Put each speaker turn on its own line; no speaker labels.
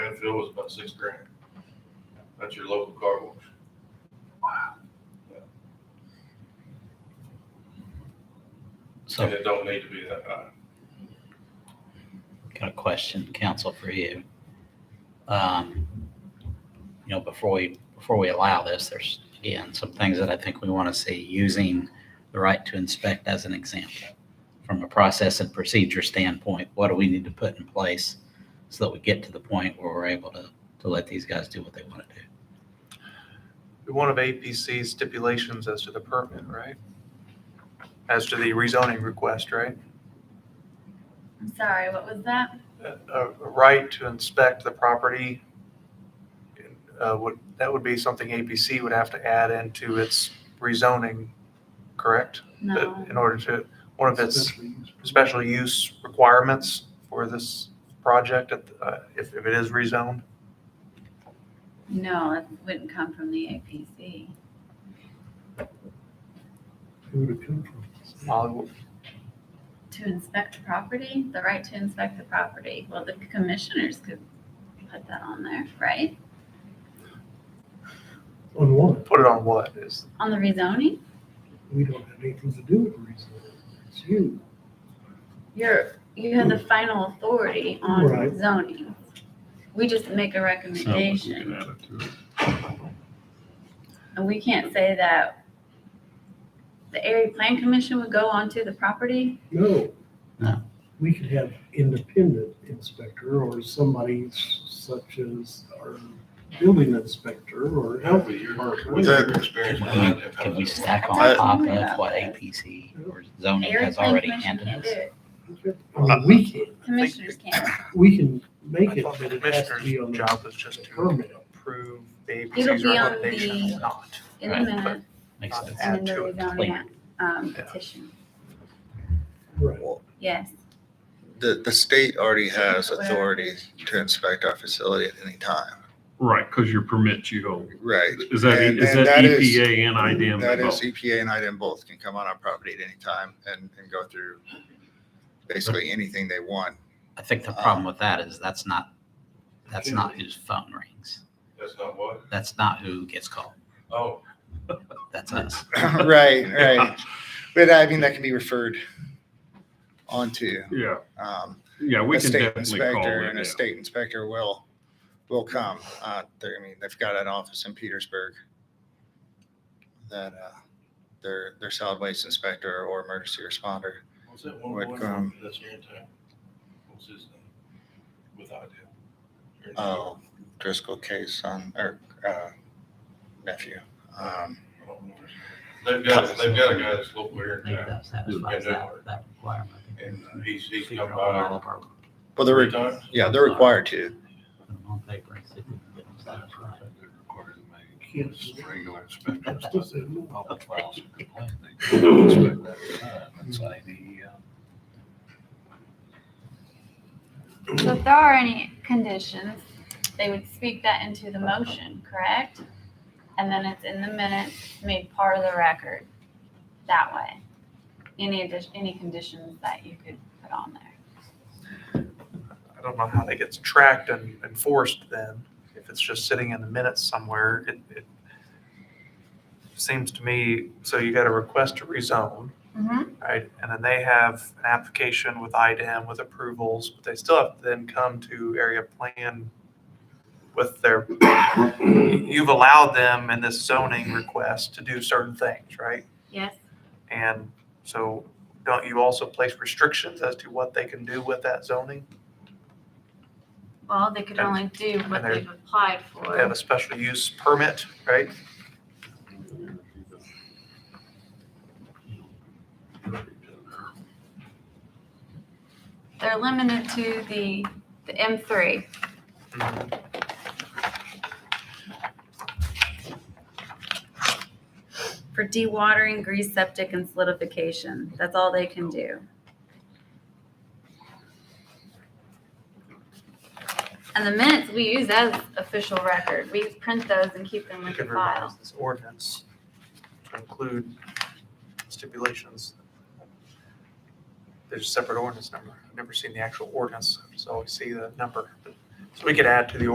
fuel was about six grand. That's your local car wash. And
So,
it don't need to be that high.
got a question, counsel, for you. Um, You know, before we, before we allow this, there's, again, some things that I think we want to see, using the right to inspect as an example. From a process and procedure standpoint, what do we need to put in place so that we get to the point where we're able to, to let these guys do what they want to do?
One of APC's stipulations as to the permit, right? As to the rezoning request, right?
I'm sorry, what was that?
A- A right to inspect the property uh, would, that would be something APC would have to add into its rezoning, correct?
No.
In order to, one of its special use requirements for this project, at the- uh, if if it is rezoned?
No, it wouldn't come from the APC.
Who would it come from?
Molly,
To inspect the property, the right to inspect the property. Well, the commissioners could put that on there, right?
On what?
Put it on what is,
On the rezoning?
We don't have anything to do with reason. It's you.
You're, you have the final authority
Right.
on zoning. We just make a recommendation and we can't say that the area plan commission would go onto the property.
No.
No.
We could have independent inspector or somebody s- such as our building inspector or health.
But you're-
or-
With that experience behind that.
Can we
how's that?
stack on
I-
top of what APC or zoning
Area
has
plan
already
commission
handed
can't
us?
do it.
I mean, We can,
Commissioners can't.
we can make
I
it,
thought the
but it has to be on
commissioner's
the
job was just to
permit.
approve the
It'll
APC's
be on
recommendation
the-
or not.
In the
Right.
minute,
Makes
Not
sense.
add
and then the
to it.
rezoning,
Clear.
um,
Yeah.
petition.
Right.
Yes.
The, the state already has
Whatever.
authority to inspect our facility at any time.
Right, because your permit you hold.
Right.
Is that, E,
And-
is
and
that
that is-
EPA and IDM?
That is
both?
EPA and IDM both can come on our property at any time and, and go through basically anything they want.
I think the problem with that is that's not, that's not whose phone rings.
That's not what?
That's not who gets called.
Oh,
That's us.
Right, right. But I mean, that can be referred onto.
Yeah,
Um,
yeah, we
a
can
state
definitely call
inspector, And a
it.
state inspector will, will come. Uh, they're, I mean, they've got an office in Petersburg that, uh, their, their solid waste inspector or emergency responder.
what's that one
Would
boy
come.
from, that's here in town? What's his name? With idea. Here in town.
Oh, Driscoll case on, or, uh, nephew. Um,
I don't know his name. They've got, they've got a guy that's local here in town,
satisfies that, that requirement.
and uh, he's, he's
Figure
come
out all
by
of our-
well,
three
they're,
times.
yeah, they're required to.
put them on paper and see if we can get them satisfied.
Yes.
Regular inspection. uh,
So if there are any conditions, they would speak that into the motion, correct? And then it's in the minutes, made part of the record that way. Any addition, any conditions that you could put on there.
I don't know how that gets tracked and enforced then, if it's just sitting in the minutes somewhere. It, it seems to me, so you got a request to rezone,
Mm-hmm.
right? And then they have an application with IDM with approvals, but they still have to then come to area plan with their, you've allowed them in this zoning request to do certain things, right?
Yes,
And so don't you also place restrictions as to what they can do with that zoning?
well, they could only do what
And there-
they've applied
They have
for.
a special use permit, right?
They're limited to the, the M three. For dewatering, grease septic, and solidification, that's all they can do. And the minutes we use as official record, we print those and keep them
We
with the
could
file.
revise this ordinance to include stipulations. There's a separate ordinance number. I've never seen the actual ordinance, so I always see the number. So we could add to the